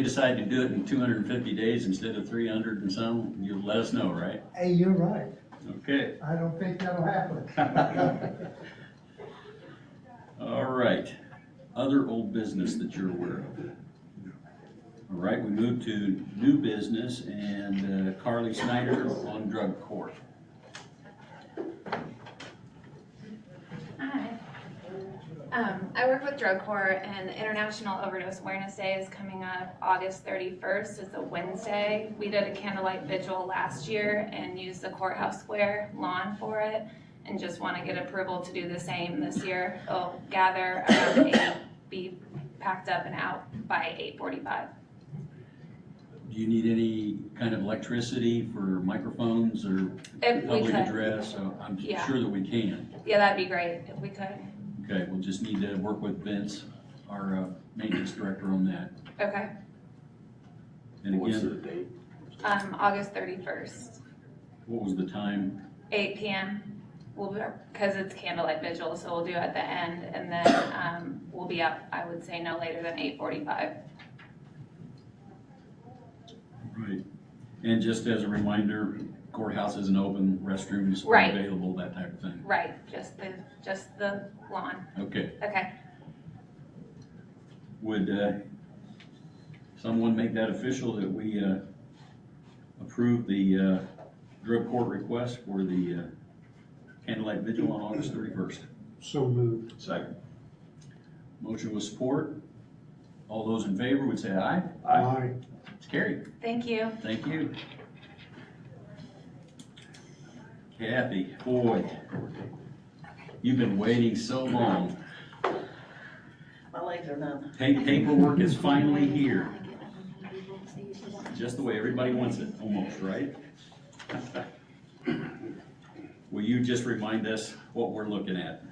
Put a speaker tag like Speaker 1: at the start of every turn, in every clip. Speaker 1: we decide to do it in two hundred and fifty days instead of three hundred and some, you'll let us know, right?
Speaker 2: Hey, you're right.
Speaker 1: Okay,
Speaker 2: I don't think that'll happen.
Speaker 1: all right. Other old business that you're aware of? All right, we move to new business and uh, Carly Snyder on drug court.
Speaker 3: Hi. Um, I work with Drug Corps and International Overdose Awareness Day is coming up August thirty-first. It's a Wednesday. We did a candlelight vigil last year and used the courthouse square lawn for it. And just want to get approval to do the same this year. It'll gather around eight, be packed up and out by eight forty-five.
Speaker 1: Do you need any kind of electricity for microphones or
Speaker 3: If we
Speaker 1: public
Speaker 3: could,
Speaker 1: address? So I'm
Speaker 3: Yeah.
Speaker 1: sure that we can.
Speaker 3: yeah, that'd be great if we could.
Speaker 1: Okay, we'll just need to work with Vince, our uh, maintenance director on that.
Speaker 3: Okay,
Speaker 1: And
Speaker 4: What's the
Speaker 1: again,
Speaker 4: date?
Speaker 3: um, August thirty-first.
Speaker 1: what was the time?
Speaker 3: eight PM. We'll, because it's candlelight vigil, so we'll do it at the end and then, um, we'll be up, I would say no later than eight forty-five.
Speaker 1: Right. And just as a reminder, courthouse isn't open, restrooms are
Speaker 3: Right.
Speaker 1: available, that type of thing.
Speaker 3: Right, just the, just the lawn.
Speaker 1: Okay,
Speaker 3: Okay,
Speaker 1: would uh, someone make that official that we uh, approve the uh, drug court request for the uh, candlelight vigil on August 31st?
Speaker 5: So moved.
Speaker 4: Second.
Speaker 1: Motion with support. All those in favor would say aye.
Speaker 5: Aye.
Speaker 1: It's carried.
Speaker 3: thank you.
Speaker 1: Thank you. Kathy, boy, you've been waiting so long.
Speaker 6: My legs are numb.
Speaker 1: Pa- Paperwork is finally here, just the way everybody wants it, almost, right? Will you just remind us what we're looking at?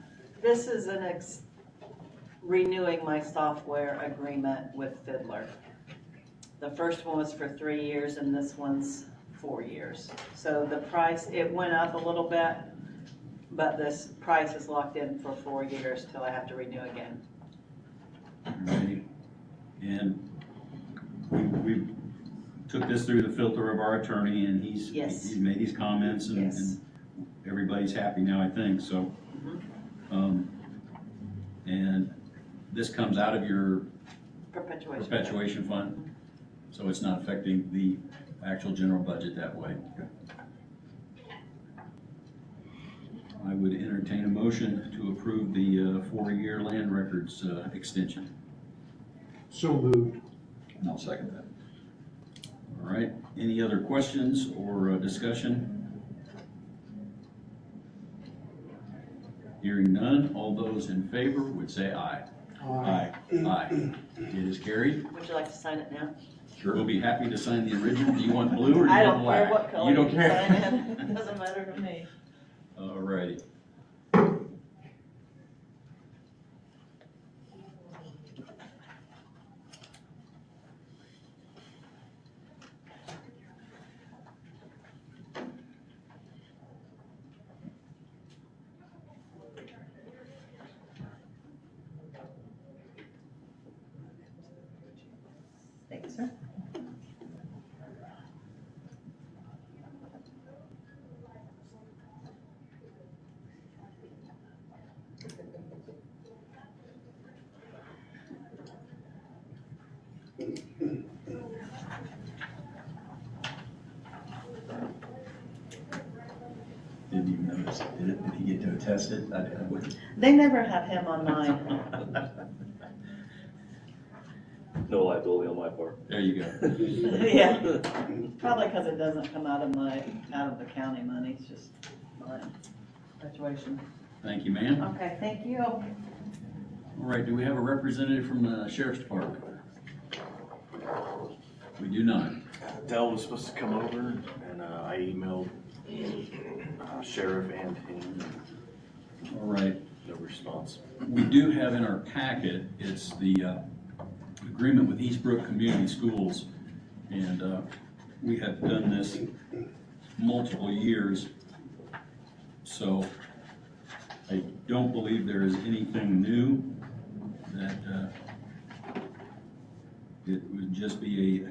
Speaker 6: This is an ex, renewing my software agreement with Fiddler. The first one was for three years and this one's four years. So the price, it went up a little bit, but this price is locked in for four years till I have to renew again.
Speaker 1: Alrighty. And we, we took this through the filter of our attorney, and he's,
Speaker 6: Yes.
Speaker 1: he's made his comments, and,
Speaker 6: Yes.
Speaker 1: and everybody's happy now, I think, so.
Speaker 6: Mhm.
Speaker 1: Um, and this comes out of your
Speaker 6: Perpetuation.
Speaker 1: perpetuation fund, so it's not affecting the actual general budget that way. I would entertain a motion to approve the, uh, four-year land records, uh, extension.
Speaker 5: So moved.
Speaker 4: And I'll second that.
Speaker 1: All right, any other questions or uh, discussion? Hearing none, all those in favor would say aye. Aye. It is carried.
Speaker 6: Would you like to sign it now?
Speaker 1: We'll be happy to sign the original. Do you want blue or do
Speaker 6: I
Speaker 1: you want
Speaker 6: don't care
Speaker 1: black?
Speaker 6: what color
Speaker 1: You don't
Speaker 6: you sign
Speaker 1: care?
Speaker 6: in. It Doesn't matter to me.
Speaker 1: All righty.
Speaker 6: Thank you, sir.
Speaker 4: Didn't even notice. Did it, did he get to attest it? I I wouldn't.
Speaker 6: They never have him on mine.
Speaker 7: No liability on my part.
Speaker 1: There you go.
Speaker 6: Yeah, probably because it doesn't come out of my, out of the county money, it's just my situation.
Speaker 1: Thank you, ma'am. All
Speaker 6: Okay, thank you.
Speaker 1: right, do we have a representative from the sheriff's department? We do not.
Speaker 4: Dell was supposed to come over and uh, I emailed uh, sheriff and him,
Speaker 1: All right.
Speaker 4: no response.
Speaker 1: We do have in our packet, it's the uh, agreement with Eastbrook Community Schools. And uh, we have done this multiple years. So I don't believe there is anything new that uh, It would just be a